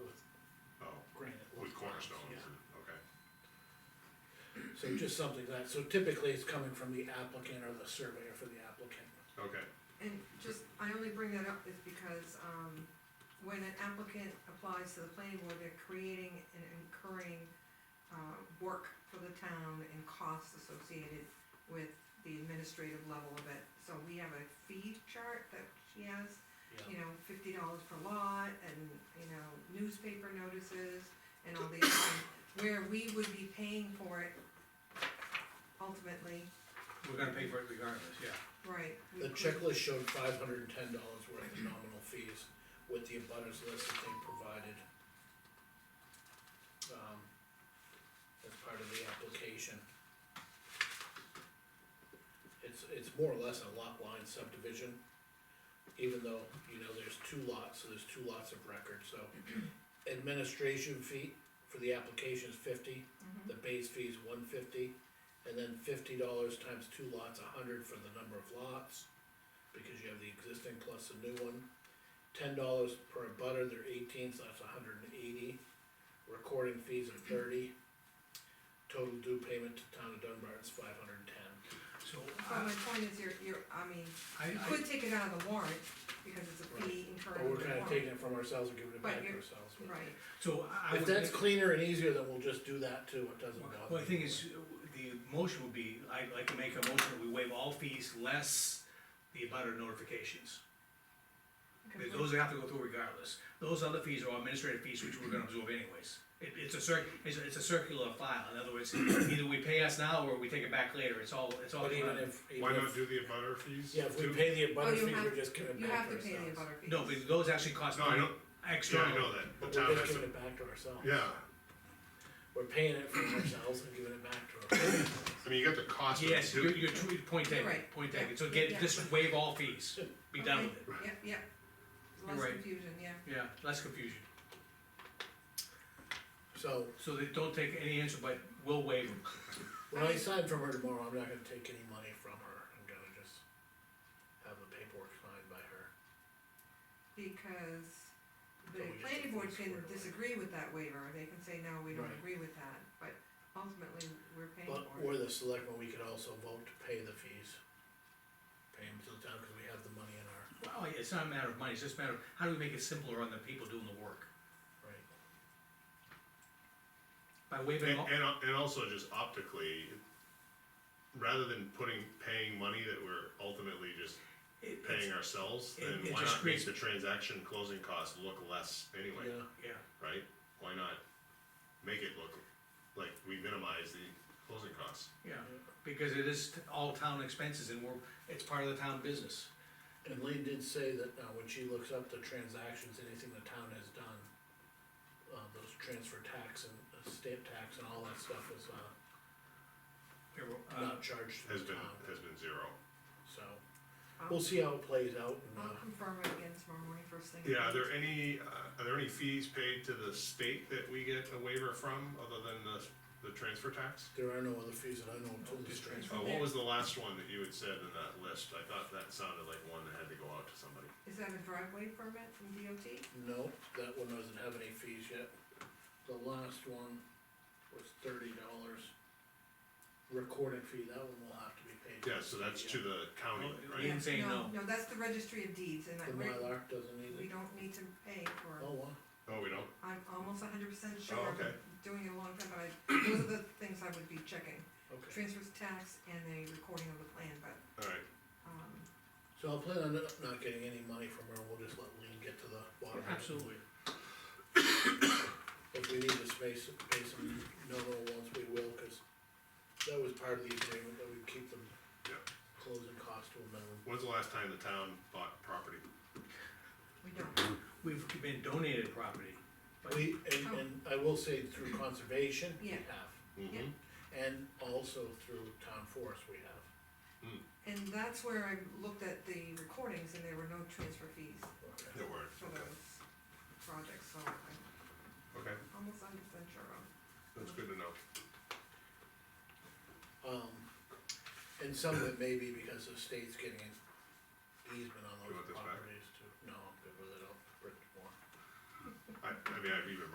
Oh, So just something like that, so typically it's coming from the applicant or the surveyor for the applicant. Okay, And just, I only bring that up is because, um, when an applicant applies to the planning board, they're creating and incurring, uh, work for the town and costs associated with the administrative level of it. So we have a fee chart that she has, you know, fifty dollars per lot and, you know, newspaper notices and all these things, where we would be paying for it ultimately, We're gonna pay for it regardless, yeah. right? we The could- checklist showed five hundred and ten dollars worth of nominal fees with the abutters list that they provided. Um, as part of the application. It's, it's more or less a lot line subdivision, even though, you know, there's two lots, so there's two lots of record, so. Administration fee for the application is fifty, Mm-hmm. the base fee is one fifty, and then fifty dollars times two lots, a hundred for the number of lots, because you have the existing plus the new one. Ten dollars per abutter, they're eighteen, so that's hundred and eighty, recording fees are thirty. Total due payment to town of Dunbar is five hundred and ten. So, But my I, point is, you're, you're, I mean, I, you Um, could take it out of the warrant, because it's a fee incurred. But we're in the kinda warrant. taking it from ourselves and giving it But back to you're- ourselves. but- Right, so I If would. that's make- cleaner and easier, then we'll just do that too, it doesn't bother. Well, the thing me. is, the motion would be, I'd like to make a motion that we waive all fees less the abutter notifications. okay, Oh, Because Those have to go through regardless. Those other fees are all administrative fees, which we're gonna absorb anyways. It, it's a cir, it's a, it's a circular file, in other words, either we pay us now or we take it back later, it's all, it's all. But even if. even uh, why if- not do the abutter fees? Yeah, if we too? pay the abutter Oh, you fee, have- we're just giving it you back have to to pay the ourselves. abutter fees. No, because those actually cost No, I money know, yeah, external. I know that, But the we're town just has giving to, it back to ourselves. yeah, We're paying it for ourselves and giving it back to ourselves. I mean, you got the cost of it Yes, too. you're, you're, true- point taken, Right. point taken, so get, Yeah. just waive all fees, be done with it. Okay, Yep, yep, You're less right. confusion, yeah. Yeah, less confusion, So, so they don't take any answer, but we'll waive them. when I sign from her tomorrow, I'm not gonna take any money from her, I'm gonna just have the paperwork signed by her. Because So the we just planning board square can it away. disagree with that waiver, they can say, no, we don't Right. agree with that, but ultimately, we're paying But, for or it. the selectmen, we could also vote to pay the fees. Pay them to the town, cause we have the money in our, Well, it's not a matter of money, it's just a matter of, how do we make it simpler on the people doing the work? right? By waiving And, all, and, and also just optically, rather than putting, paying money that we're ultimately just it- it's, paying ourselves, it- it then why just not creates- make the transaction closing costs look less anyway, Yeah, yeah. right? Why not make it look like we minimize the closing costs? Yeah, because it is t- all town expenses and we're, it's part of the town business. and Lee did say that, uh, when she looks up the transactions, anything the town has done, uh, those transfer tax and uh, stamp tax and all that stuff is, uh, Here, uh, not charged to Has the been, town, has been zero. so. I'll- We'll see how it plays out and, I'll uh, confirm it again tomorrow morning, first thing. in the Yeah, are morning. there any, uh, are there any fees paid to the state that we get a waiver from, other than the, the transfer tax? there are no other fees that I know of till this Just transfer. transfer. Oh, what was the last one that you had said in that list? I thought that sounded like one that had to go out to somebody. Is that a driveway permit from DOT? No, that one doesn't have any fees yet. The last one was thirty dollars. Recording fee, that one will have to be paid. Yeah, so that's to the county, You right? didn't say no. No, that's the registry of deeds, and I, The we're- Mylar doesn't we either. don't need to pay for. Oh, wow. Oh, we don't? I'm almost hundred percent sure, Oh, I've been okay. doing it a long time, but I, those are the things I would be checking, Okay. transfers tax and the recording of the plan, but, Alright, um, So I'll plan on not not getting any money from her. We'll just let Lean get to the bottom. of it. Absolutely. If we need to space, pay some nominal ones, we will, cause that was part of the agreement that we keep them Yeah. closing costs to a minimum. when's the last time the town bought property? we don't. We've been donated property. but- We, and, and I will say through conservation, we Yeah. have. Mm-hmm. And also through town forest we have. And that's where I looked at the recordings and there were no transfer fees Okay. There weren't, for okay, those projects, so I'm okay, almost hundred percent sure of. that's good to know. Um, and some of it may be because the state's getting an easement on You those want this back? properties too. No, I'm good with it, I'll print more. I, I mean, I've even